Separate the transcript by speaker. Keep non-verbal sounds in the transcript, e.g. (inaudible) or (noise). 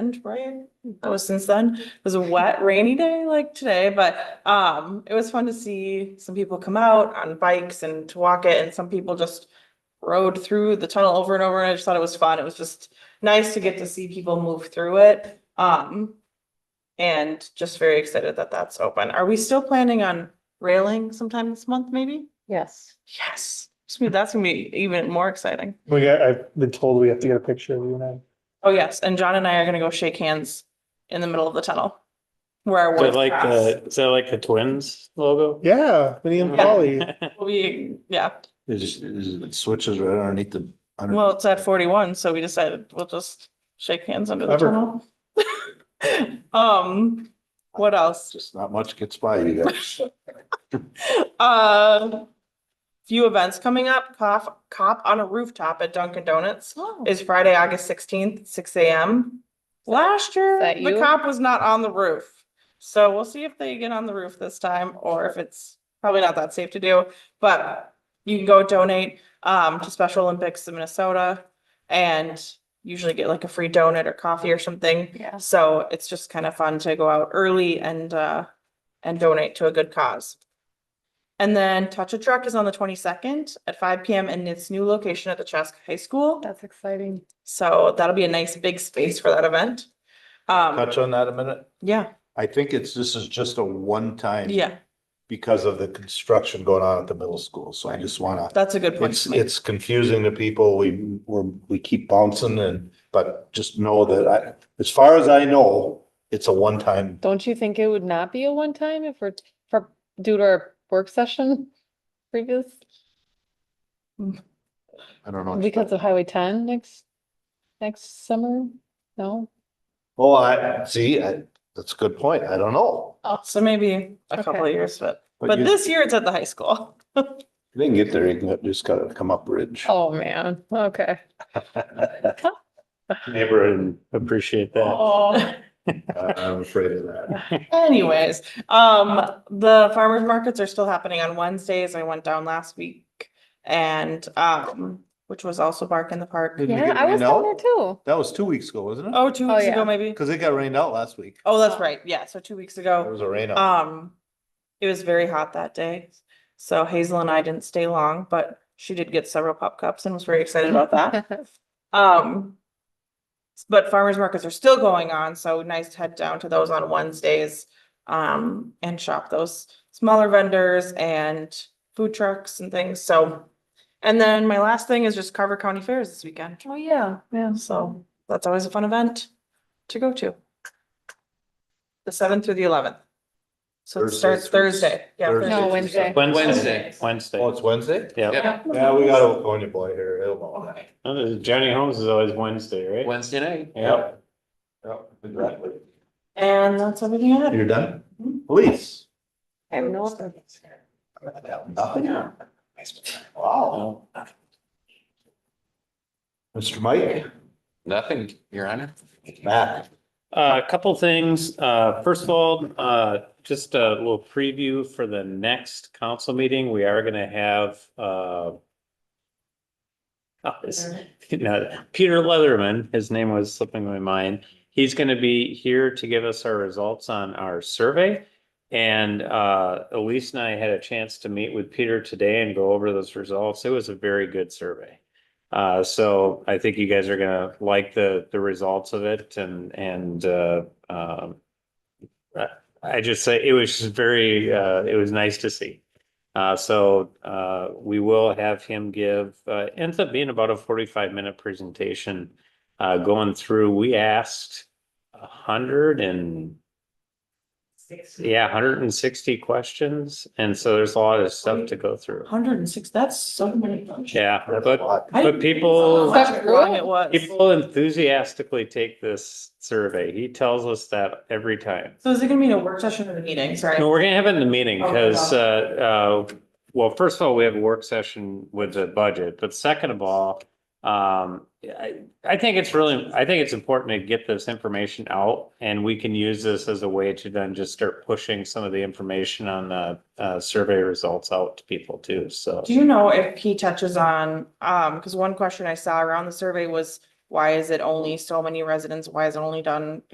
Speaker 1: end, right? Oh, since then, it was a wet, rainy day like today, but um, it was fun to see some people come out on bikes and to walk it, and some people just rode through the tunnel over and over, and I just thought it was fun. It was just nice to get to see people move through it. Um, and just very excited that that's open. Are we still planning on railing sometime this month, maybe?
Speaker 2: Yes.
Speaker 1: Yes, It's gonna be- that's gonna be even more exciting.
Speaker 3: We got, I've been told we have to get a picture of you and I.
Speaker 1: Oh, yes, and John and I are gonna go shake hands in the middle of the tunnel. Where our
Speaker 4: Is that
Speaker 1: words
Speaker 4: like
Speaker 1: cross.
Speaker 4: the, is that like the twins logo?
Speaker 3: Yeah, Vinny and Polly.
Speaker 1: We'll be, yeah,
Speaker 5: It just, it just- it switches right underneath the. under-
Speaker 1: well, it's at forty-one, so we decided we'll just shake hands under the
Speaker 3: Clever.
Speaker 1: tunnel. (laughs) Um, what else?
Speaker 5: Just not much gets by you
Speaker 1: (laughs)
Speaker 5: guys.
Speaker 1: Uh, few events coming up, cough, cop on a rooftop at Dunkin' Donuts
Speaker 2: Oh.
Speaker 1: is Friday, August sixteenth, six AM. Last year,
Speaker 2: that
Speaker 1: the
Speaker 2: you?
Speaker 1: cop was not on the roof. So we'll see if they get on the roof this time or if it's probably not that safe to do. But you can go donate um to Special Olympics of Minnesota and usually get like a free donut or coffee or something.
Speaker 2: Yeah.
Speaker 1: So it's just kind of fun to go out early and uh and donate to a good cause. And then Touch a Truck is on the twenty-second at five PM in its new location at the Chaska High School.
Speaker 2: That's exciting.
Speaker 1: So that'll be a nice big space for that event. Um,
Speaker 5: Touch on that a minute.
Speaker 1: yeah,
Speaker 5: I think it's, this is just a one time.
Speaker 1: yeah,
Speaker 5: Because of the construction going on at the middle school. So I just wanna,
Speaker 1: that's a good point.
Speaker 5: it's,
Speaker 1: to make.
Speaker 5: it's confusing to people. We, we're, we keep bouncing and, but just know that I, as far as I know, it's a one time.
Speaker 2: Don't you think it would not be a one time if we're, for, due to our work session (laughs) previous,
Speaker 5: I don't know.
Speaker 2: because of Highway ten next, next summer? No?
Speaker 5: Oh, I, see, I, that's a good point. I don't know.
Speaker 1: So maybe a couple of
Speaker 2: Oh. Okay.
Speaker 1: years, but,
Speaker 5: But
Speaker 1: but
Speaker 5: you-
Speaker 1: this year it's at the high school.
Speaker 5: They can get there, you can just gotta come up ridge.
Speaker 2: Oh, man. Okay.
Speaker 1: Oh.
Speaker 5: (laughs)
Speaker 4: Neighborhood, appreciate that.
Speaker 2: Oh,
Speaker 5: I- I'm afraid of that.
Speaker 1: (laughs) Anyways, um, the farmers markets are still happening on Wednesdays. I went down last week. And, um, which was also Bark in the Park.
Speaker 5: Did you
Speaker 2: yeah,
Speaker 5: get
Speaker 2: I was
Speaker 5: rained
Speaker 2: down
Speaker 5: out?
Speaker 2: there too.
Speaker 5: That was two weeks ago, wasn't it?
Speaker 1: Oh, two
Speaker 2: Oh,
Speaker 1: weeks
Speaker 2: yeah.
Speaker 1: ago, maybe?
Speaker 5: Because it got rained out last week.
Speaker 1: Oh, that's right. Yeah, so two weeks ago.
Speaker 5: There was a rain out.
Speaker 1: Um, it was very hot that day, so Hazel and I didn't stay long, but she did get several pop cups and was very excited about
Speaker 2: (laughs)
Speaker 1: that. Um. But farmers markets are still going on, so nice to head down to those on Wednesdays. Um, and shop those smaller vendors and food trucks and things, so. And then my last thing is just Carver County Fairs this weekend,
Speaker 2: Oh, yeah, yeah.
Speaker 1: so that's always a fun event to go to. The seventh through the eleventh. So it
Speaker 5: Thursday
Speaker 1: starts
Speaker 5: through-
Speaker 1: Thursday, yeah, Thursday.
Speaker 5: Thursday
Speaker 2: No,
Speaker 5: through
Speaker 2: Wednesday.
Speaker 5: Sunday.
Speaker 4: Wednesday, Wednesday.
Speaker 5: Oh, it's Wednesday?
Speaker 4: Yeah.
Speaker 6: Yeah,
Speaker 5: Yeah, we got a California boy here. He'll know that.
Speaker 4: Oh, Johnny Holmes is always Wednesday, right?
Speaker 6: Wednesday night.
Speaker 4: Yeah.
Speaker 5: Yep, exactly. Mm-hmm.
Speaker 1: And that's everything I had.
Speaker 5: You're done? Police.
Speaker 2: I have no other.
Speaker 5: Nothing. Wow.
Speaker 4: Oh,
Speaker 5: Mr. Mike,
Speaker 6: Nothing, Your Honor.
Speaker 5: Matt.
Speaker 4: Uh, A couple things. Uh, First of all, uh, just a little preview for the next council meeting. We are going to have uh, oh, this- (laughs) no, Peter Leatherman, his name was slipping my mind. He's going to be here to give us our results on our survey. And uh, Elise and I had a chance to meet with Peter today and go over those results. It was a very good survey. Uh, so I think you guys are gonna like the, the results of it and, and, uh, um. I just say it was just very, uh, it was nice to see. Uh, so, uh, we will have him give, uh, ends up being about a forty-five minute presentation. Uh, going through, we asked a hundred and. Yeah, hundred and sixty questions. And so there's a lot of stuff to go through.
Speaker 1: Hundred and six, that's so many. bunch.
Speaker 4: Yeah,
Speaker 5: That's a
Speaker 4: but
Speaker 5: lot.
Speaker 1: I didn't
Speaker 4: But
Speaker 1: realize
Speaker 4: people-
Speaker 1: how much wrong It was.
Speaker 4: People enthusiastically take this survey. He tells us that every time.
Speaker 1: So is it gonna be a work session or a meeting?
Speaker 4: No,
Speaker 1: Sorry.
Speaker 4: we're gonna have it in the meeting
Speaker 1: Okay.
Speaker 4: because, uh, uh, well, first of all, we have a work session with the budget, but second of all, um, I, I think it's really, I think it's important to get this information out and we can use this as a way to then just start pushing some of the information on the, uh, survey results out to people too, so.
Speaker 1: Do you know if he touches on, um, cause one question I saw around the survey was Why is it only so many residents? Why is it only done